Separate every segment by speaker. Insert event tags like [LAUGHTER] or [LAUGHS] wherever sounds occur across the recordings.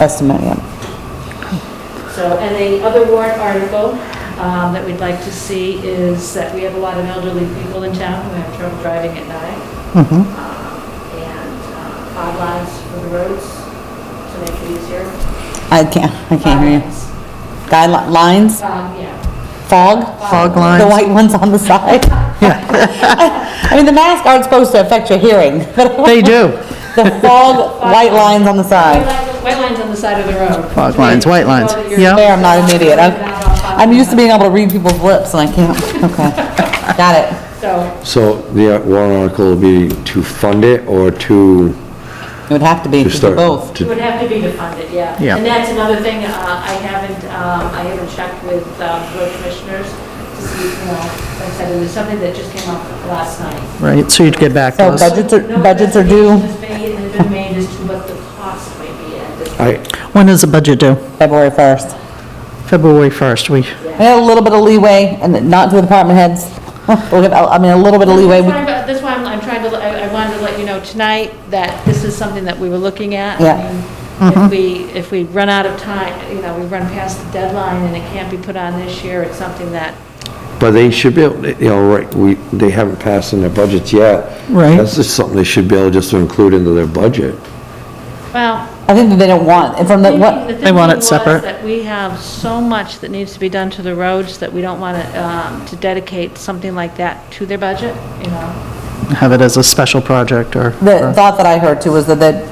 Speaker 1: estimate, yeah.
Speaker 2: So, and the other warrant article um, that we'd like to see is that we have a lot of elderly people in town who have trouble driving at night.
Speaker 3: Mm-hmm.
Speaker 2: um,
Speaker 1: Mhm.
Speaker 2: And uh, fog lines for the roads to make it easier.
Speaker 1: I can't, I can't hear you.
Speaker 2: Fog lines.
Speaker 1: Guidelines,
Speaker 2: Fog, um, yeah.
Speaker 1: fog?
Speaker 2: Fog
Speaker 1: The
Speaker 3: lines.
Speaker 1: white ones on the side? [LAUGHS] I mean, the masks aren't supposed to affect your hearing, but [LAUGHS]
Speaker 3: They do.
Speaker 1: the fog, white lines on the
Speaker 2: White
Speaker 1: side.
Speaker 2: lines- White lines on the side of the road.
Speaker 3: Fog lines, white lines,
Speaker 2: Well, you're-
Speaker 3: yeah.
Speaker 1: There, I'm not an idiot. I'm I'm used to being able to read people's lips and I can't, okay. Got it.
Speaker 2: So,
Speaker 4: So the warrant article will be to fund it or to,
Speaker 1: It would have to be, to
Speaker 4: to
Speaker 1: do
Speaker 4: start?
Speaker 1: both.
Speaker 2: it
Speaker 4: to-
Speaker 2: would have to be to fund it, yeah.
Speaker 3: Yeah.
Speaker 2: And that's another thing, uh, I haven't, um, I haven't checked with um, road commissioners to see, you know, like I said, it was something that just came up last night.
Speaker 3: Right, so you'd get back to
Speaker 1: So
Speaker 3: us.
Speaker 1: budget- Budgets are- budgets are due.
Speaker 2: No investigation has been made as to what the cost might be at this.
Speaker 4: I,
Speaker 3: When is the budget due?
Speaker 1: February 1st.
Speaker 3: February 1st, we,
Speaker 1: I had a little bit of leeway, and not to the department heads, [LAUGHS] We'll give- I mean, a little bit of leeway,
Speaker 2: That's why
Speaker 1: We-
Speaker 2: I'm- that's why I'm, I'm trying to, I, I wanted to let you know tonight that this is something that we were looking at. I
Speaker 1: Yeah. Mm-hmm.
Speaker 2: mean, If we, if we run out of time, you know, we run past the deadline and it can't be put on this year, it's something that,
Speaker 4: but they should be, able. you know, right, we, they haven't passed in their budgets yet.
Speaker 3: Right.
Speaker 4: That's just something they should be able just to include into their budget.
Speaker 2: well.
Speaker 1: I think that they don't want, and from the,
Speaker 2: thinking-
Speaker 1: what,
Speaker 2: the
Speaker 3: They want
Speaker 2: thinking
Speaker 3: it
Speaker 2: was
Speaker 3: separate.
Speaker 2: That we have so much that needs to be done to the roads that we don't want to, um, to dedicate something like that to their budget, you know?
Speaker 3: have it as a special project or,
Speaker 1: the thought that I heard too was that, that,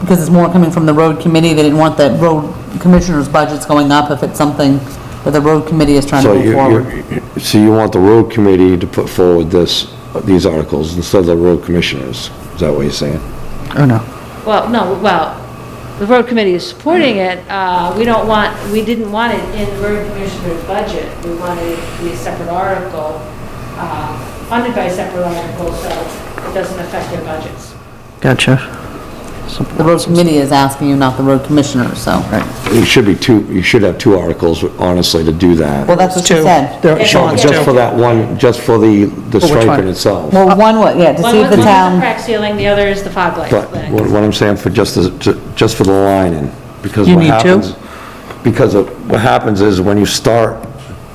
Speaker 1: because it's more coming from the road committee, they didn't want the road commissioner's budgets going up if it's something that the road committee is trying to
Speaker 4: So
Speaker 1: move
Speaker 4: you,
Speaker 1: forward.
Speaker 4: you, so you want the road committee to put forward this, these articles instead of the road commissioners? Is that what you're saying?
Speaker 3: oh no.
Speaker 2: Well, no, well, the road committee is supporting it, uh, we don't want, we didn't want it in the road commissioner's budget, we wanted it to be a separate article, uh, funded by a separate article, so it doesn't affect their budgets.
Speaker 3: Gotcha.
Speaker 1: The road committee is asking you, not the road commissioner, so.
Speaker 4: It should be two, you should have two articles, honestly, to do that.
Speaker 1: Well, that's what she
Speaker 3: Two.
Speaker 1: said.
Speaker 3: There-
Speaker 4: Not
Speaker 3: Sean's
Speaker 4: Just
Speaker 3: two.
Speaker 4: for that one, just for the, the
Speaker 3: For which one?
Speaker 4: striping itself.
Speaker 1: Well, one, wa- yeah, to
Speaker 2: One
Speaker 1: see
Speaker 2: was one was
Speaker 1: if the
Speaker 2: the
Speaker 1: town,
Speaker 2: crack ceiling, the other is the fog light.
Speaker 4: But what what I'm saying for just, the- ju- just for the lining, because
Speaker 3: You
Speaker 4: what
Speaker 3: need two?
Speaker 4: happens, because of, what happens is when you start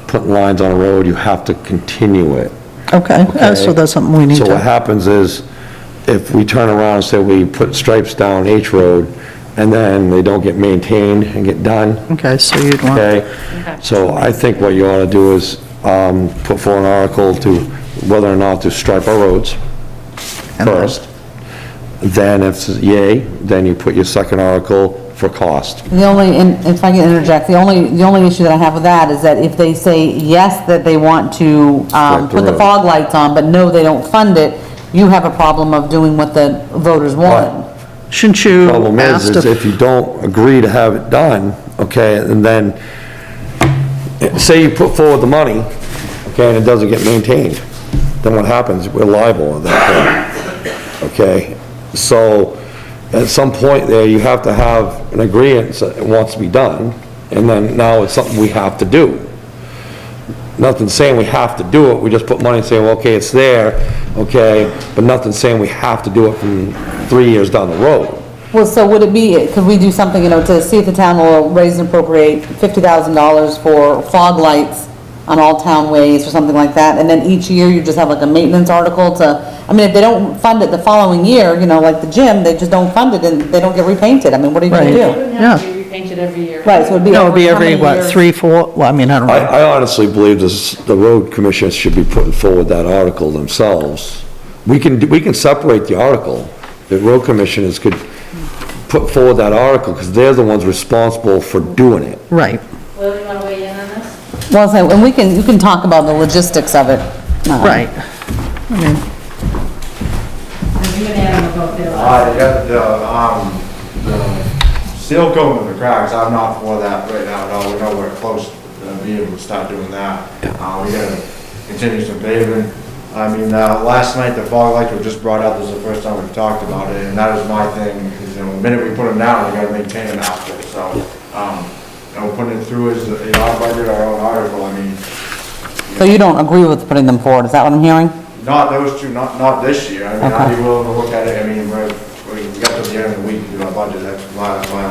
Speaker 4: putting lines on a road, you have to continue it.
Speaker 3: Okay, uh, so that's something we need
Speaker 4: So what
Speaker 3: to,
Speaker 4: happens is, if we turn around and say we put stripes down H Road, and then they don't get maintained and get done,
Speaker 3: okay, so you'd want,
Speaker 4: okay? So I think what you ought to do is, um, put forward an article to whether or not to stripe our roads
Speaker 3: And then-
Speaker 4: first. Then if it's yay, then you put your second article for cost.
Speaker 1: the only, and if I can interject, the only, the only issue that I have with that is that if they say, yes, that they want to, um,
Speaker 4: Like the
Speaker 1: put the
Speaker 4: road.
Speaker 1: fog lights on, but no, they don't fund it, you have a problem of doing what the voters want.
Speaker 3: shouldn't you
Speaker 4: Problem is,
Speaker 3: ask
Speaker 4: is
Speaker 3: to,
Speaker 4: if you don't agree to have it done, okay, and then, say you put forward the money, okay, and it doesn't get maintained, then what happens? We're liable on that point, okay? So, at some point there, you have to have an agreement that it wants to be done, and then now it's something we have to do. Nothing saying we have to do it, we just put money and say, well, okay, it's there, okay, but nothing saying we have to do it from three years down the road.
Speaker 1: Well, so would it be, could we do something, you know, to see if the town will raise and appropriate fifty thousand dollars for fog lights on all town ways or something like that, and then each year you just have like a maintenance article to, I mean, if they don't fund it the following year, you know, like the gym, they just don't fund it and they don't get repainted, I mean, what are you gonna
Speaker 2: It
Speaker 1: do?
Speaker 2: wouldn't have to be repainted every year.
Speaker 1: Right, so it'd be.
Speaker 3: no, it'd be
Speaker 1: how
Speaker 3: every,
Speaker 1: many
Speaker 3: what,
Speaker 1: years?
Speaker 3: three, four, well, I mean, I don't know.
Speaker 4: I, I honestly believe this, the road commissioners should be putting forward that article themselves. We can, do- we can separate the article. The road commissioners could put forward that article, because they're the ones responsible for doing it.
Speaker 3: Right,
Speaker 2: Will, you want to weigh in on this?
Speaker 1: Well, so, and we can, you can talk about the logistics of it. um,
Speaker 3: right. I mean,
Speaker 2: You and Adam will both there.
Speaker 5: Uh, yeah, the, um, the seal coating of the cracks, I'm not for that right now, no, we're nowhere close to being able to start doing that. Uh, we gotta continue some paving. I mean, uh, last night, the fog lights were just brought up, this is the first time we've talked about it, and that is my thing, is, you know, the minute we put them down, we gotta maintain them out there, so, um, you know, putting it through is, you know, our budget, our own article, I mean,
Speaker 1: So you don't agree with putting them forward, is that what I'm hearing?
Speaker 5: not those two, not, not this year. I mean,
Speaker 1: Okay.
Speaker 5: I'd be willing to look at it, I mean, we're, we got to the end of the week to do our budget, that's my, my